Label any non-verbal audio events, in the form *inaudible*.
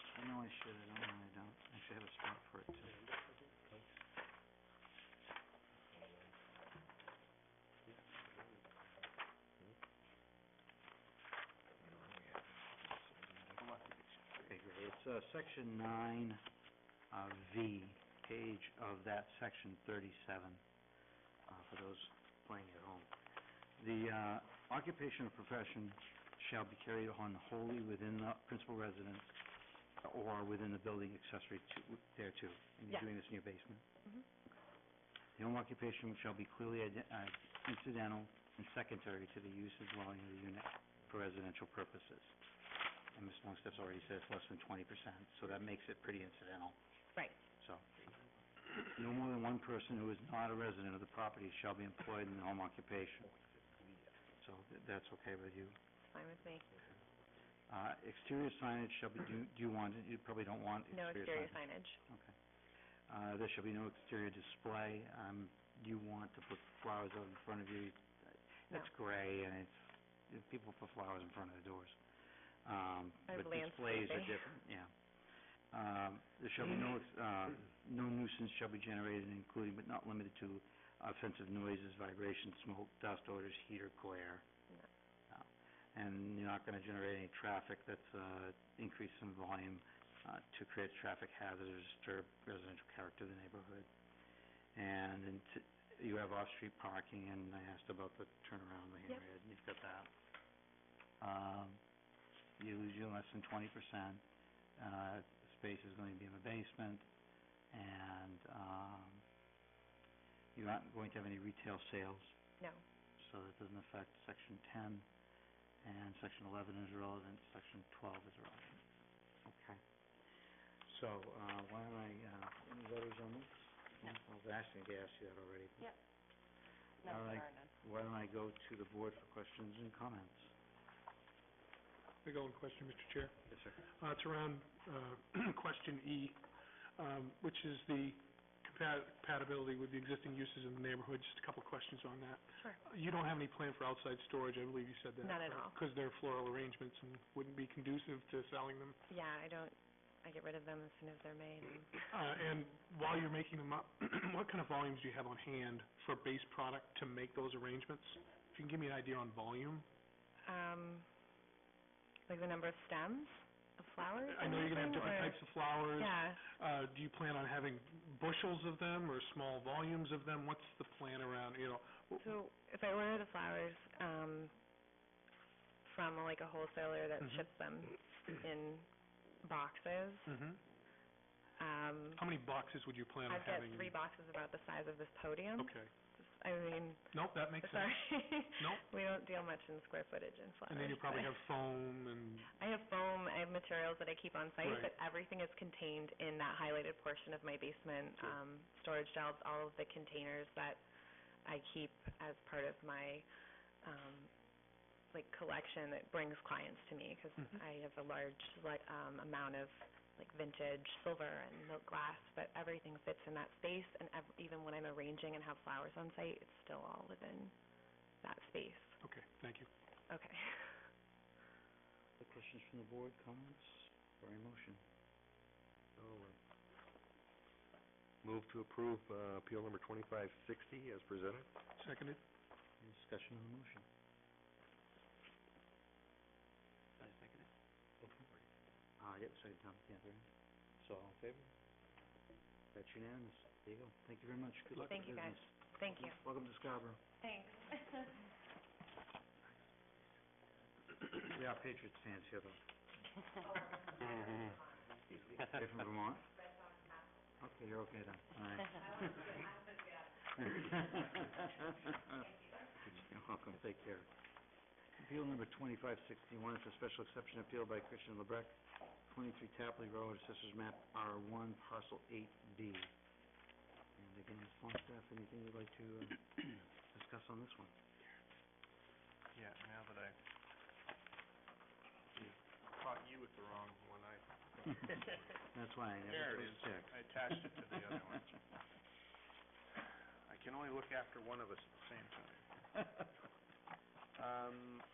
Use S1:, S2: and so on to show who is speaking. S1: shit, I don't know, I don't actually have a spot for it too. Bigger. It's, uh, section nine, uh, V, page of that section thirty-seven, uh, for those playing at home. The, uh, occupation or profession shall be carried on wholly within the principal residence or within the building accessory to, thereto. And you're
S2: Yeah.
S1: doing this in your basement?
S2: Mhm.
S1: The home occupation shall be clearly ide- uh, incidental and secondary to the use of dwelling of the unit for residential purposes. And Ms. Longstaff's already said it's less than twenty percent, so that makes it pretty incidental.
S2: Right.
S1: So, no more than one person who is not a resident of the property shall be employed in the home occupation. So th- that's okay with you.
S2: Fine with me.
S1: Uh, exterior signage shall be, do, do you want, it? you probably don't want
S2: No
S1: exterior
S2: exterior
S1: signage.
S2: signage.
S1: Uh, there shall be no exterior display. Um, you want to put flowers out in front of you. That's gray and it's, if people put flowers in front of the doors. Um,
S2: I
S1: but
S2: have
S1: displays are
S2: landscaping.
S1: different, yeah. Um, there shall be no,
S2: *laughs*
S1: ex- uh, no nuisance shall be generated, including but not limited to offensive noises, vibrations, smoke, dust odors, heat or glare.
S2: No.
S1: No. And you're not gonna generate any traffic that's, uh, increase in volume, uh, to create traffic hazard or disturb residential character of the neighborhood. And then t- you have off-street parking, and I asked about the turnaround lane,
S2: Yep.
S1: right, and you've got that. Um, you lose your less than twenty percent, uh, space is going to be in the basement, and, um, you're not going to have any retail sales,
S2: No.
S1: so that doesn't affect section ten, and section eleven is relevant, section twelve is relevant. Okay. So, uh, why don't I, uh, any letters on this?
S2: No.
S1: I was asking to ask you that already. but
S2: Yep.
S1: No, All right. there Why don't I go to the board for questions and comments?
S3: Big old question, Mr. Chair.
S1: Yes, sir.
S3: Uh, It's around uh, *clears throat* question E, um, which is the compa- compatibility with the existing uses in the neighborhood. Just a couple questions on that.
S2: Sure.
S3: You don't have any plan for outside storage, I believe you said that.
S2: Not at all.
S3: Because they're floral arrangements and wouldn't be conducive to selling them.
S2: Yeah, I don't, I get rid of them as soon as they're made. and-
S3: Uh, And while you're making them up, *clears throat* what kind of volumes do you have on hand for base product to make those arrangements? If you can give me an idea on volume.
S2: Um, like the number of stems of flowers
S3: I know you're going to have different types of flowers.
S2: Yeah.
S3: Uh, do you plan on having bushels of them or small volumes of them? What's the plan around, you know?
S2: So if I order the flowers, um, from like a wholesaler that
S3: Mhm.
S2: ships them in boxes,
S3: Mhm.
S2: um,
S3: How many boxes would you plan on
S2: I've got
S3: having?
S2: three boxes about the size of this podium.
S3: Okay.
S2: I mean,
S3: Nope, that makes sense.
S2: sorry.
S3: Nope.
S2: *laughs* We don't deal much in square footage in flowers.
S3: And then you probably
S2: but-
S3: have foam and,
S2: I have foam, I have materials that I keep on site,
S3: Right.
S2: but everything is contained in that highlighted portion of my basement,
S3: Sure.
S2: um, storage shelves, all of the containers that I keep as part of my, um, like, collection that brings clients to me, 'cause
S3: Mhm.
S2: I have a large, like, um, amount of, like, vintage silver and milk glass, but everything fits in that space, and ev- even when I'm arranging and have flowers on site, it's still all within that space.
S3: okay, thank you.
S2: Okay. *laughs*
S1: The questions from the board, comments, or a motion?
S4: Move to approve uh, appeal number 2560 as presented.
S3: Seconded?
S1: Any discussion on the motion? I second it. Uh, yep, second Tom, yeah, there. So, all in favor? That's unanimous. There you go. Thank you very much. Good luck with
S2: Thank you,
S1: business.
S2: guys. Thank you.
S1: Welcome to Scarborough.
S2: Thanks.
S1: We are Patriots fans here, though. You're from Vermont? Okay, you're okay then, all right. You're welcome, take care. Appeal number twenty-five sixty-one, it's a special exception appeal by Christian Lebrecht, twenty-three Tapley Road, Assessors Map R one, Parcel eight B. And again, Ms. Longstaff, anything you'd like to uh, discuss on this one?
S4: *laughs* Yeah, now that I caught you with the wrong one, *laughs* I
S1: That's why I
S4: There it
S1: never close
S4: is.
S1: check.
S4: I attached it to the other *laughs* one. *laughs* I can only look after one of us at the same time. Um,